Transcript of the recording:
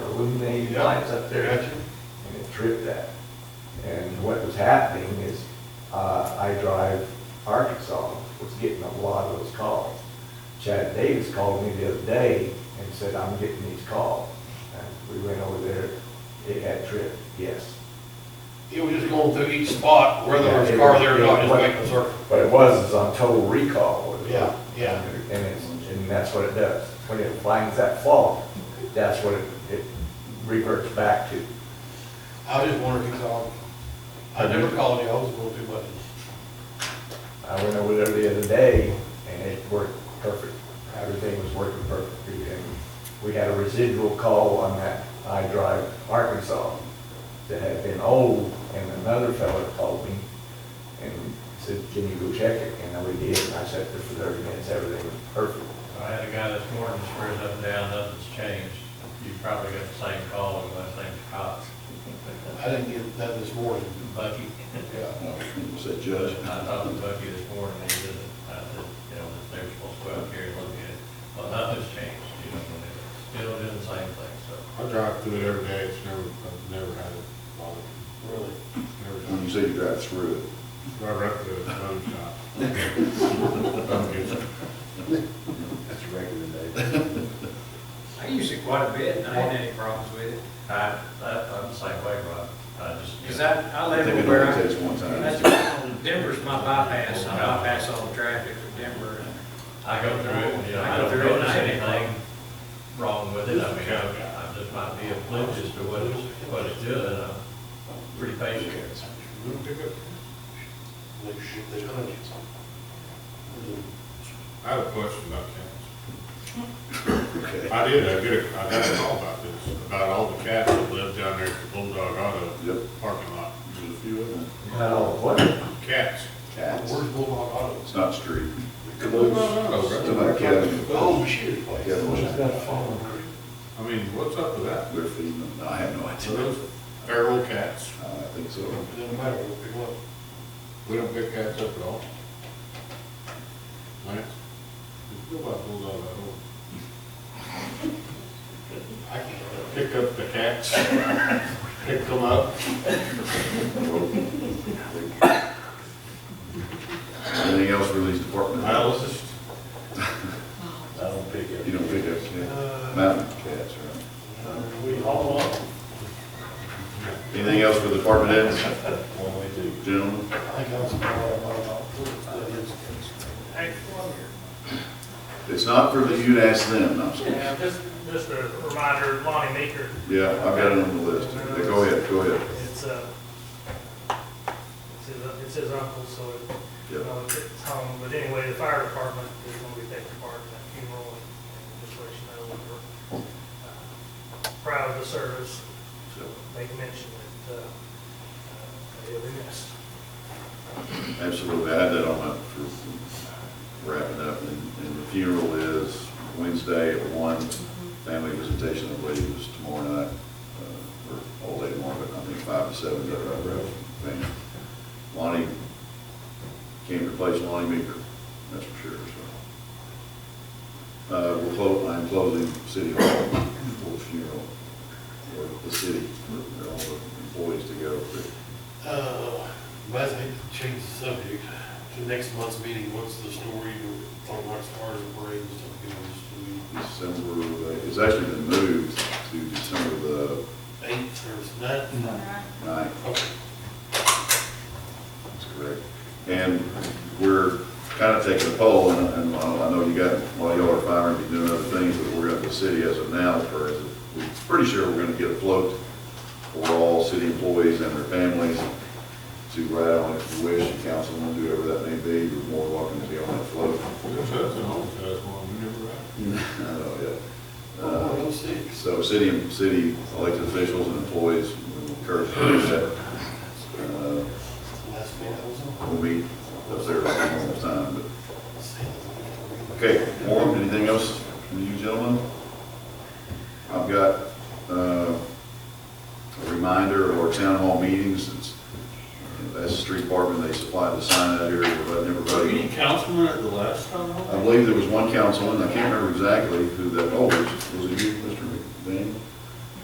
illuminated lights up there. And it tripped that. And what was happening is, uh, I Drive Arkansas was getting a lot of those calls. Chad Davis called me the other day and said, I'm getting these calls. And we went over there, it had tripped, yes. It was just going through each spot, whether there was a car there or not, just making a circle. But it was, it's on total recall. was it? Yeah, yeah. And it's, and that's what it does. When it finds that fault, that's what it, it reverts back to. I was just wondering, cause all- I never called you, I was a little too much. I went over there the other day and it worked perfect. Everything was working perfectly. And we had a residual call on that I Drive Arkansas that had been old and another fellow called me and said, can you go check it? And I we did. And I sat there for thirty minutes. Everything was perfect. I had a guy this morning, swears up and down, nothing's changed. You probably got the same call, and last name's Cox. I didn't get that this morning. Bucky, Yeah. Said I Judge. talked to Bucky this morning, and he said, I said, you know, that they're supposed to go out here and look at it. Well, nothing's changed, you know, and it's still doing the same thing, so. I drive through it every day, it's never, I've never had it bother me, Really? never When done you it. say you drive through it, Drive right through it, bone shop. Bone gets it. that's regular day. I use it quite a bit, and I ain't had any problems with it, I, I- I'm the same way, Rob. I just. because I, I I live think it in where only I, takes one that's, time. why Denver's my bypass, I bypass all the traffic from Denver. I go through it, you know, I I go don't through it, notice I- anything wrong with it, I mean, I, I just might be oblivious to what it's, what it's doing, I'm pretty patient. Little pickup. They shoot, they hunt you. I have a question about cats. Okay. I did, I get a, I got a call about this, about all the cats that live down there at the Bulldog Auto Yep. parking lot. There's a few of them. Now, what, Cats. Cats. Where's Bulldog It's Autos? not street. Oh, Bulldog To Auto, my right? cabin. Oh, shit. place. Yeah, where's that phone? I mean, what's up with that? They're feeding them. No, I have no Are idea. Uh, those feral cats? I think so. It doesn't matter, we'll pick them up. We don't pick cats up at all. Lance? Go by Bulldog Auto. I can't. help it. pick up the cats, pick them up. Anything else released department? I was just, I don't pick You don't pick up cats, mountain cats, right? We haul them up. Anything else for the department heads, one way to. gentlemen? I think that's what I'm all about. It's not for the, you to ask them, I'm sorry. Yeah, just, just a reminder, Lonnie Maker, Yeah, I've got it on the list. Go ahead, go ahead. it's, uh, it's his, it's his uncle, so it- you Yep. know, it's home, but anyway, the fire department is gonna be taking part in that funeral, and just let you know, we're uh, proud of the service, So, make mention that, uh, uh, they'll be missed. Absolutely, I had that on my, for wrapping up, and, and the funeral is Wednesday at one. Family visitation, I believe, is tomorrow night, uh, or all day tomorrow, but I think five to seven, is that right, Ralph? Man, Lonnie, can't replace Lonnie Meeker, that's for sure, so. Uh, we'll close, I'm closing City Hall for the funeral, or the city, for all the employees to go, but Uh, might as well change the subject to next month's meeting, what's the story, on what stars and parades and stuff, you know, just December, uh, it's actually been moved to December the do eighth or ninth? ninth, Okay. that's correct. And we're kind of taking a poll, and- and I know you got, while y'all are firing, you're doing other things, but we're at the city as of now, for, we're pretty sure we're gonna get a float for all city employees and their families to ride on if you wish, and council, and whoever that may be, you're more than welcome to be on that float. there's us and all the us, one, we never had. I know, yeah. Uh, Oh, no, six. So city, city elected officials and employees, we encourage that. Uh, Last one, that was on. We'll meet up there at normal time, but, Sales. okay, Warren, anything else from you gentlemen? I've got, uh, a reminder of our town hall meetings, it's, uh, that's the street department, they supplied the sign out here, we're letting everybody. councilmen at the last town hall? I believe there was one councilman, I can't remember exactly who that, oh, was was it you, Mr. McBane?